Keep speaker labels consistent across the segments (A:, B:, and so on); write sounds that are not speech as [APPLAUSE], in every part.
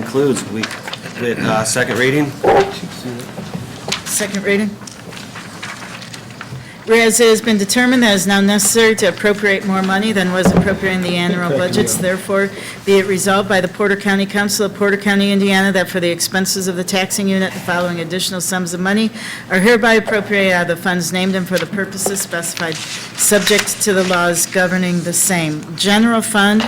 A: concludes we- with uh, second reading.
B: Second reading. Whereas it has been determined that it is now necessary to appropriate more money than was appropriated in the annual budgets, therefore be it resolved by the Porter County Council of Porter County, Indiana, that for the expenses of the taxing unit, the following additional sums of money are hereby appropriated out of the funds named and for the purposes specified, subject to the laws governing the same. General fund,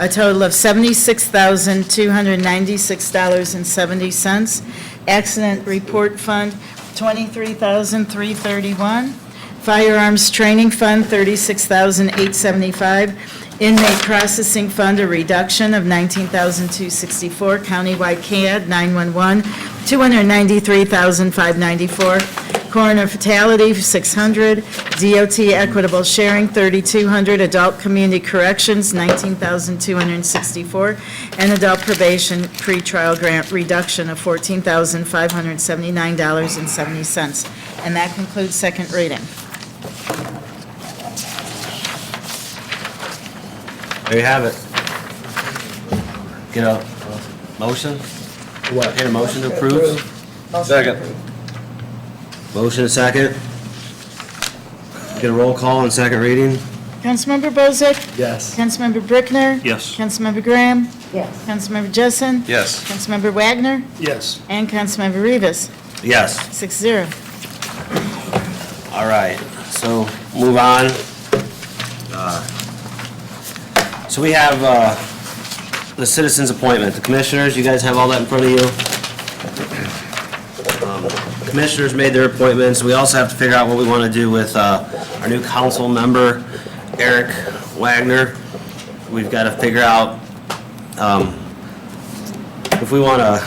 B: a total of $76,296.70. Accident Report Fund, $23,331. Firearms Training Fund, $36,875. Inmate Processing Fund, a reduction of $19,264. Countywide CAD, 911, $293,594. Coroner Fatality, 600. DOT Equitable Sharing, 3,200. Adult Community Corrections, 19,264. And adult probation pretrial grant reduction of $14,579.70. And that concludes second reading.
A: There you have it. Get a motion? What? Get a motion to approve?
C: Second.
A: Motion and second. Get a roll call on second reading?
B: Councilmember Bozick.
C: Yes.
B: Councilmember Brickner.
C: Yes.
B: Councilmember Graham.
D: Yes.
B: Councilmember Jessen.
C: Yes.
B: Councilmember Wagner.
C: Yes.
B: And Councilmember Rivas.
A: Yes.
B: Six zero.
A: All right, so move on. Uh, So we have uh, the citizens' appointment. The commissioners, you guys have all that in front of you. Um, Commissioners made their appointments. We also have to figure out what we want to do with uh, our new council member, Eric Wagner. We've got to figure out um, if we want to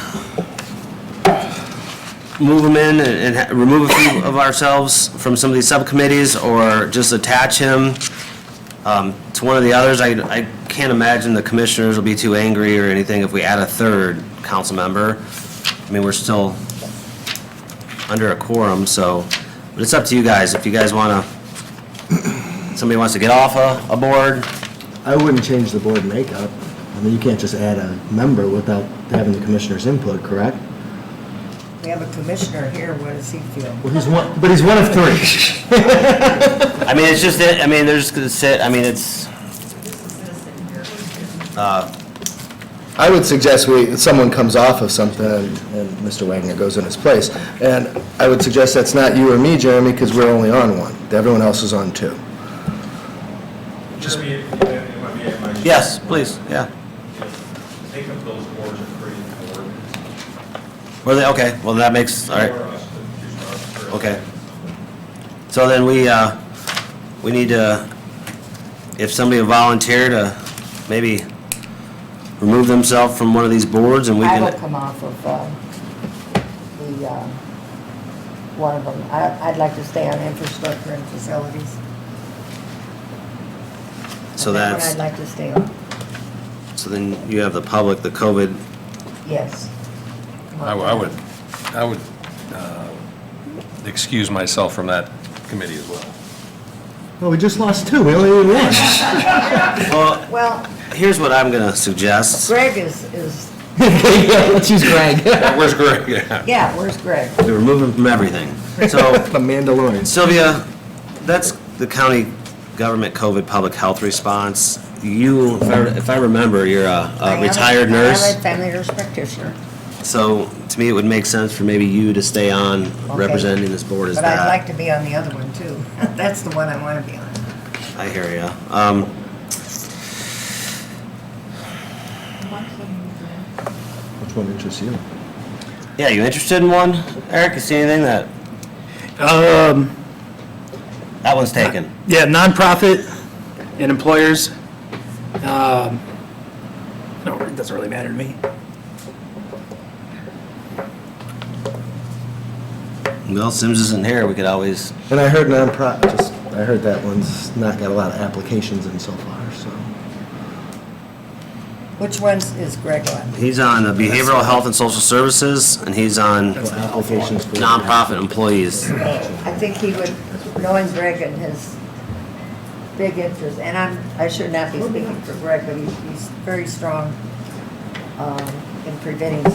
A: move them in and and ha- remove a few of ourselves from some of these subcommittees, or just attach him um, to one of the others? I I can't imagine the commissioners will be too angry or anything if we add a third council member. I mean, we're still under a quorum, so, but it's up to you guys. If you guys want to, somebody wants to get off a a board,
E: I wouldn't change the board makeup. I mean, you can't just add a member without having the commissioner's input, correct?
D: We have a commissioner here, what does he feel?
E: Well, he's one, but he's one of three.
A: I mean, it's just, that- I mean, they're just going to sit, I mean, it's,
E: I would suggest we, someone comes off of something and Mr. Wagner goes in his place. And I would suggest that's not you or me, Jeremy, because we're only on one. Everyone else is on two.
F: Jeremy, if- if I may, if I may,
A: yes, please, yeah.
F: if Take up those boards and create an ordinance.
A: Were they, okay, well, that makes, all right.
F: For us to choose our- for us.
A: Okay. So then we, uh, we need to, if somebody volunteered to maybe remove themselves from one of these boards and we
D: I will
A: can,
D: come off of uh, the, uh, one of them. I- I'd like to stay on infrastructure and facilities.
A: so
D: And that one
A: that's,
D: I'd like to stay on,
A: so then you have the public, the COVID,
D: yes.
C: I w- I would, I would uh, excuse myself from that committee as well.
E: Well, we just lost two. We only need one.
A: well,
D: Well,
A: here's what I'm gonna
D: [LAUGHS]
A: suggest.
D: Greg is, is,
E: [LAUGHS] Yeah, let's use Greg. [LAUGHS]
C: Where's
A: [LAUGHS]
C: Greg? Yeah.
D: yeah, where's Greg?
A: We remove them from everything. So
E: The Mandalorian.
A: Sylvia, that's the county government COVID public health response. You, if I- if I remember, you're a-
D: I
A: a
D: am
A: Uh, retired nurse.
D: I'm a family nurse practitioner,
A: So to me, it would make sense for maybe you to stay on representing this board as
D: but I'd like
A: that.
D: to be on the other one too. [LAUGHS] That's the one I want to be on.
A: I hear ya. Um,
E: Which one interests you?
A: yeah, you interested in one? Eric, you see anything that,
G: Um,
A: that one's taken.
G: yeah, nonprofit and employers. Um, no, it doesn't really matter to me.
A: Well, Sims isn't here. We could always,
E: And I heard nonprofit, just, I heard that one's not got a lot of applications in so far, so.
D: Which one's, is Greg on?
A: he's on the behavioral health and social services and he's on
E: Well, Applications for.
A: nonprofit employees.
D: I think he would, knowing Greg and his big interest, and I'm, I should not be speaking for Greg, but he's, he's very strong um, in preventing